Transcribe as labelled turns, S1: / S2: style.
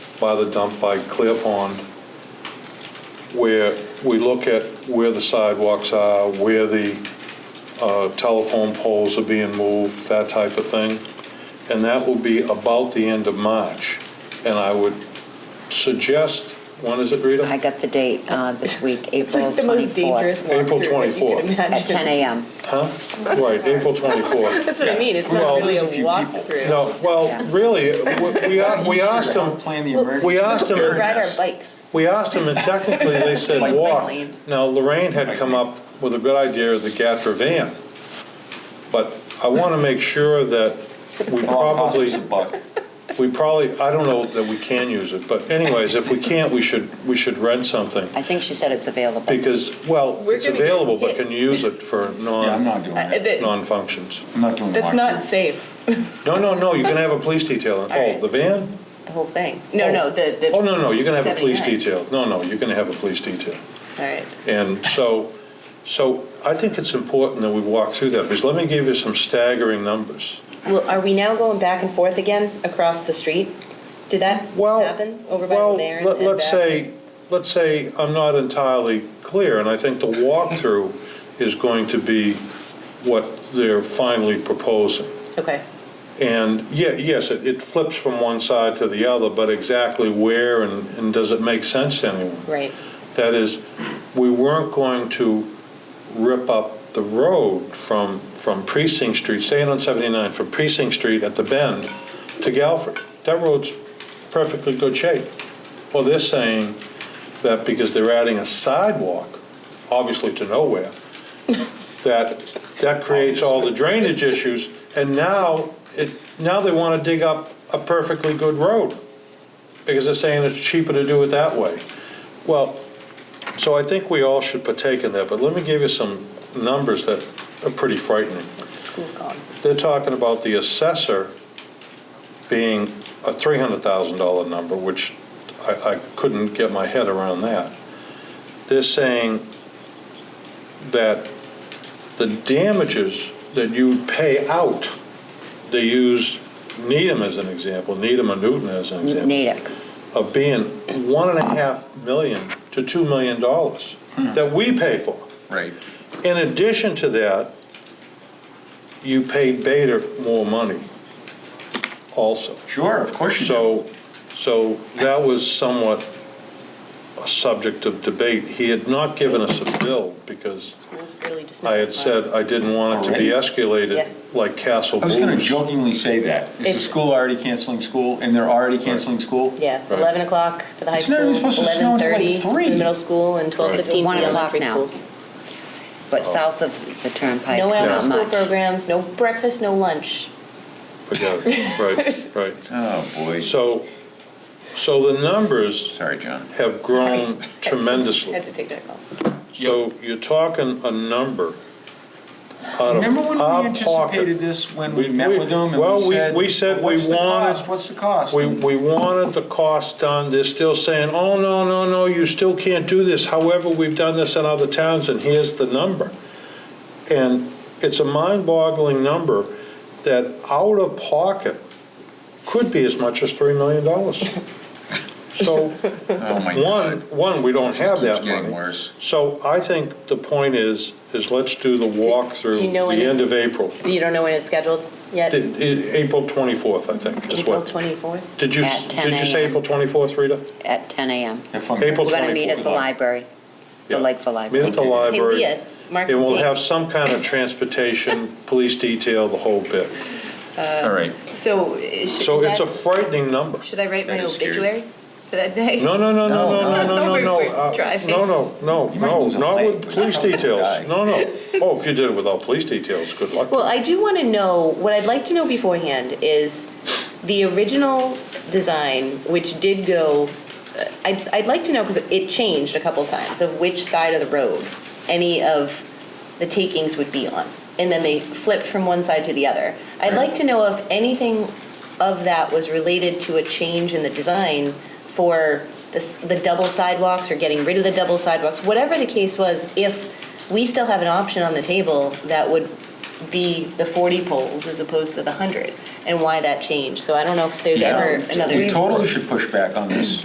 S1: by the dump by Clear Pond, where we look at where the sidewalks are, where the uh, telephone poles are being moved, that type of thing. And that will be about the end of March. And I would suggest, when is it, Rita?
S2: I got the date uh, this week,
S3: It's like
S2: April
S3: the most dangerous
S2: 24th.
S1: April
S3: walkthrough that you
S1: 24th.
S3: could imagine.
S2: At 10 a.m.
S1: Huh? Right, April 24th.
S3: That's what I mean, it's
S1: Well,
S3: not really a
S4: there's a few people.
S3: walkthrough.
S1: No, well, really, we- we a- we asked
S4: Don't
S1: them,
S4: Plan the emergency.
S1: we asked them-
S3: We ride our bikes.
S1: we asked them, and technically, they said
S4: Bike
S1: walk.
S3: lane.
S1: Now, Lorraine had come up with a good idea of the Gatra van, but I want to make sure that we
S4: It all costs
S1: probably,
S4: us a buck.
S1: we probably, I don't know that we can use it, but anyways, if we can't, we should, we should rent something,
S2: I think she said it's available.
S1: because, well,
S3: We're
S1: it's
S3: gonna get
S1: available, but
S3: hit.
S1: can you use it for
S4: Yeah, I'm
S1: non,
S4: not doing
S3: Uh,
S4: it.
S3: that-
S1: non-functions?
S4: I'm not doing
S3: That's
S4: walkthrough.
S3: not safe,
S1: No, no, no, you're going to have a police detail. Oh,
S3: right.
S1: the van?
S3: the whole thing. No,
S1: Oh.
S3: no, the, the.
S1: Oh, no, no, you're going to have a police
S3: 79.
S1: detail. No, no, you're going to have a police detail.
S3: All right.
S1: And so, so I think it's important that we walk through that, because let me give you some staggering numbers.
S3: Well, are we now going back and forth again across the street? Did that
S1: Well,
S3: happen over by
S1: well,
S3: the mayor?
S1: let-
S3: and
S1: let's
S3: back?
S1: say, let's say I'm not entirely clear, and I think the walkthrough is going to be what they're finally proposing.
S3: Okay,
S1: And, yeah, yes, it it flips from one side to the other, but exactly where and and does it make sense to anyone?
S3: right,
S1: That is, we weren't going to rip up the road from, from Precinct Street, staying on 79, from Precinct Street at the bend to Galphie. That road's perfectly good shape. Well, they're saying that because they're adding a sidewalk, obviously to nowhere, that, that creates all the drainage issues, and now, it, now they want to dig up a perfectly good road, because they're saying it's cheaper to do it that way. Well, so I think we all should partake in that, but let me give you some numbers that are pretty frightening.
S3: school's gone.
S1: They're talking about the assessor being a $300,000 number, which I, I couldn't get my head around that. They're saying that the damages that you pay out, they use Needham as an example, Needham or Newton as an example
S2: Natick.
S1: of being one and a half million to two million dollars
S4: Hmm.
S1: that we pay for.
S4: Right.
S1: In addition to that, you pay Bader more money also.
S4: Sure, of course you do.
S1: So, so that was somewhat a subject of debate. He had not given us a bill because
S3: School's really just
S1: I
S3: missing
S1: had
S3: the
S1: said I didn't want it to be
S3: Yeah.
S1: escalated like Castle
S4: I was going to
S1: Blues.
S4: jokingly say that. Is the
S3: It's-
S4: school already canceling school and they're already canceling school?
S3: Yeah,
S1: Right.
S3: 11 o'clock for the high
S4: It's
S3: school,
S4: not even supposed to snow until, like,
S3: 11:30 for the
S4: three.
S3: middle school, and 12:15 for
S2: One
S3: the
S2: o'clock
S3: elementary
S2: now.
S3: schools.
S1: Oh.
S2: But south of the turnpike,
S3: No
S2: not
S3: after-school
S2: much.
S3: programs, no breakfast, no lunch.
S1: Forget it. Right, right.
S4: Oh, boy.
S1: So, so the numbers.
S4: Sorry, John.
S1: have
S3: Sorry.
S1: grown
S3: I had
S1: tremendously.
S3: to take that call.
S1: So you're talking a number out of
S4: Remember when
S1: our
S4: we anticipated
S1: pocket.
S4: this, when
S1: We-
S4: we met
S1: we-
S4: with them and
S1: well,
S4: we
S1: we-
S4: said?
S1: we said
S4: "What's
S1: we
S4: the
S1: wanted-
S4: cost? What's the cost?
S1: We, we wanted the cost done, they're still saying, oh, no, no, no, you still can't do this. However, we've done this in other towns and here's the number. And it's a mind-boggling number that out of pocket could be as much as $3 million. So
S4: Oh, my
S1: One,
S4: God.
S1: one, we don't
S4: It
S1: have
S4: just
S1: that
S4: keeps getting
S1: money.
S4: worse.
S1: So I think the point is, is let's do the walkthrough
S3: do you know when
S1: the end
S3: it's-
S1: of April.
S3: You don't know when it's scheduled yet?
S1: The- the- April 24th, I think, is
S3: April
S1: what.
S3: 24th?
S1: Did you,
S2: At 10
S1: did you say
S2: a.m.
S1: April 24th, Rita?
S2: At 10 a.m.
S4: If I'm-
S1: April
S2: We're going to meet
S1: 24th.
S2: at the library, the
S1: Yeah.
S2: Lakeville
S1: Meet
S2: Library.
S1: at the
S3: Hey,
S1: library.
S3: Leah, mark
S1: And
S3: the
S1: we'll
S3: date.
S1: have some kind of transportation, police detail, the whole bit.
S4: All right.
S3: So, is- is
S1: So it's a
S3: that-
S1: frightening number.
S3: should I write
S4: That
S3: my
S4: is scary.
S3: obituary for that day?
S1: No, no, no, no, no, no, no, no, no.
S3: We're
S1: uh,
S3: driving.
S1: No, no, no,
S4: You might
S1: no,
S4: lose a
S1: not
S4: leg.
S1: with police details. No, no. Oh, if you did it without police details, good luck.
S3: Well, I do want to know, what I'd like to know beforehand is the original design, which did go, uh, I'd, I'd like to know, because it changed a couple times, of which side of the road any of the takings would be on. And then they flipped from one side to the other. I'd like to know if anything of that was related to a change in the design for the, s- the double sidewalks or getting rid of the double sidewalks, whatever the case was, if we still have an option on the table that would be the 40 poles as opposed to the 100, and why that changed. So I don't know if there's
S4: Yeah.
S3: ever another.
S4: We totally should push back on this.